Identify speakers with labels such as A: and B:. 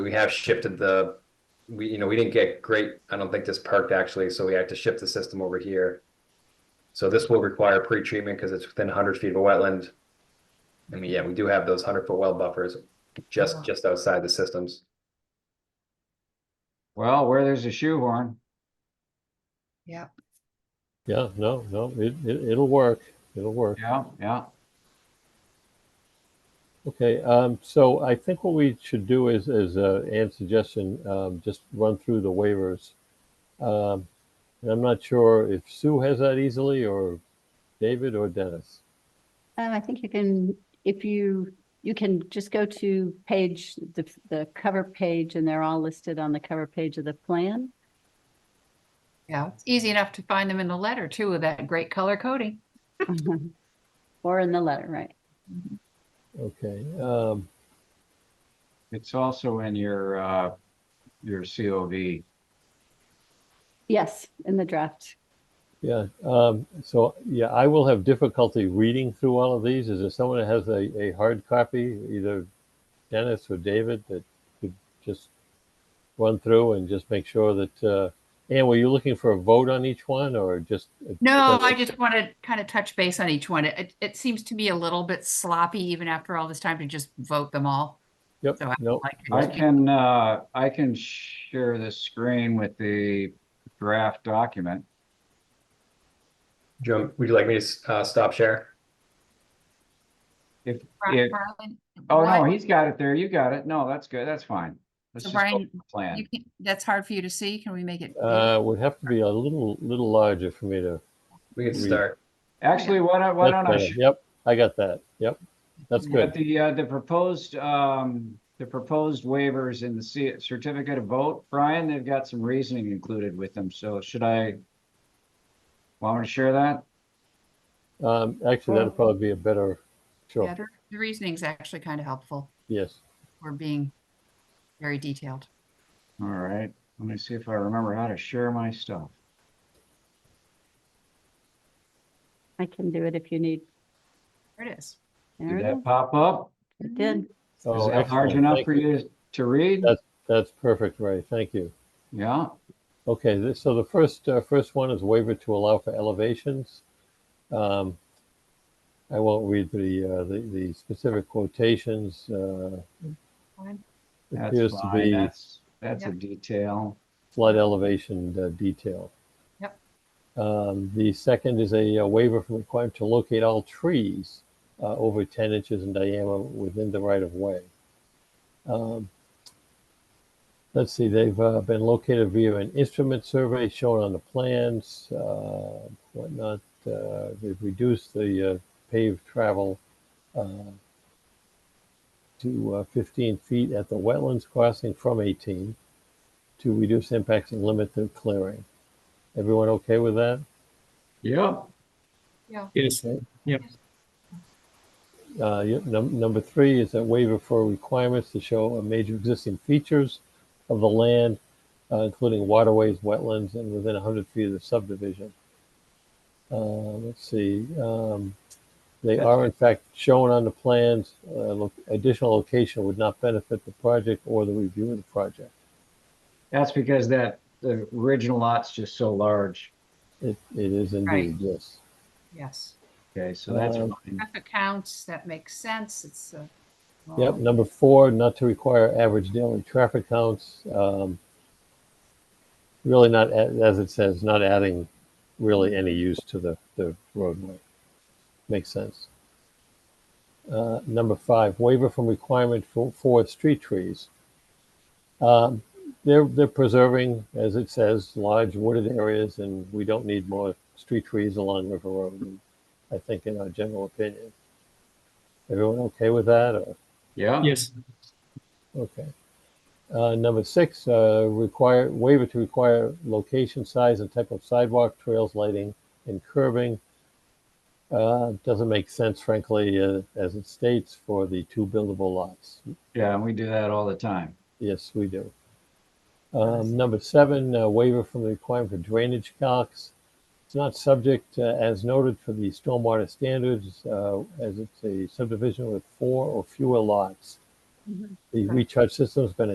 A: we have shifted the, we, you know, we didn't get great, I don't think this perked actually, so we had to shift the system over here. So this will require pre-treatment because it's within hundred feet of a wetland. I mean, yeah, we do have those hundred foot well buffers just, just outside the systems.
B: Well, where there's a shoehorn,
C: Yeah,
D: Yeah, no, no, it, it, it'll work. It'll work.
B: yeah, yeah.
D: Okay, um, so I think what we should do is, is, uh, Ann's suggestion, um, just run through the waivers. Um, and I'm not sure if Sue has that easily or David or Dennis.
E: Um, I think you can, if you, you can just go to page, the, the cover page, and they're all listed on the cover page of the plan.
C: yeah. It's easy enough to find them in the letter too with that great color coding.
E: Or in the letter, right?
D: Okay, um,
B: It's also in your, uh, your COV.
E: Yes, in the draft.
D: yeah, um, so, yeah, I will have difficulty reading through all of these. Is there someone that has a, a hard copy, either Dennis or David, that could just run through and just make sure that, uh, Ann, were you looking for a vote on each one or just?
C: No, I just want to kind of touch base on each one. It, it seems to me a little bit sloppy even after all this time to just vote them all.
D: Yep,
C: So I
D: no,
C: like to
B: I
C: just keep-
B: can, uh, I can share the screen with the draft document.
A: Jim, would you like me to, uh, stop share?
B: If,
C: Brian-
B: if,
C: Brian,
B: oh, no,
C: why-
B: he's got it there. You got it. No, that's good. That's fine. Let's
C: So
B: just go
C: Brian,
B: with the plan.
C: you can't- That's hard for you to see. Can we make it? big?
D: Uh, would have to be a little, little larger for me to.
A: We can
D: We-
A: start.
B: Actually, why don't, why
D: That's
B: don't I
D: better.
B: sh-
D: Yep, I got that. Yep, that's
B: But
D: good.
B: the, uh, the proposed, um, the proposed waivers in the C- certificate of vote, Brian, they've got some reasoning included with them, so should I? Want me to share that?
D: Um, actually, that'd probably be a better,
C: Yeah,
D: sure,
C: The the reasoning's actually kind of helpful.
D: yes.
C: We're being very detailed.
B: All right, let me see if I remember how to share my stuff.
E: I can do it if you need.
C: There it is.
E: There
B: Did
E: it
B: that pop up?
E: is. It did.
D: Oh,
B: Is that large
D: excellent.
B: enough
D: Thank
B: for you to read?
D: That's- That's perfect, Ray, thank you.
B: Yeah,
D: Okay, this, so the first, uh, first one is waiver to allow for elevations. Um, I won't read the, uh, the, the specific quotations, uh,
C: Fine.
D: it
B: that's
D: appears to
B: fine,
D: be
B: that's, that's a detail.
D: flood elevation uh, detail.
C: Yep.
D: Um, the second is a uh, waiver from requirement to locate all trees uh, over 10 inches in diameter within the right of way. Um, let's see, they've uh, been located via an instrument survey shown on the plans, uh, whatnot. Uh, they've reduced the uh, paved travel uh, to uh, 15 feet at the wetlands crossing from 18 to reduce impacts and limit the clearing. Everyone okay with that?
B: Yep.
C: Yeah.
F: Yes,
D: Uh, yeah, num- number three is a waiver for requirements to show a major existing features of the land, uh, including waterways, wetlands, and within 100 feet of the subdivision. Uh, let's see, um, they are in fact shown on the plans. Uh, lo- additional location would not benefit the project or the review of the project.
B: That's because that, the original lot's just so large.
D: It, it is
C: Right.
D: indeed, yes.
C: Yes.
B: Okay, so that's
D: Um,
B: fine.
C: Traffic counts, that makes sense. It's uh, a.
D: Yep, number four, not to require average daily traffic counts. um, Really not, a- as it says, not adding really any use to the, the roadway. Makes sense. Uh, Number five, waiver from requirement for, for street trees. Um, They're, they're preserving, as it says, large wooded areas and we don't need more street trees along River Road, I think in our general opinion. Everyone okay with that or?
B: Yeah,
F: yes,
D: Okay. Uh, number six, uh, require, waiver to require location, size, and type of sidewalk, trails, lighting, and curbing. Uh, doesn't make sense frankly, uh, as it states for the two buildable lots.
B: yeah, and we do that all the time.
D: Yes, we do. Um, number seven, uh, waiver from the requirement for drainage calcs. It's not subject, uh, as noted, for the stormwater standards, uh, as it's a subdivision with four or fewer lots. The recharge system's been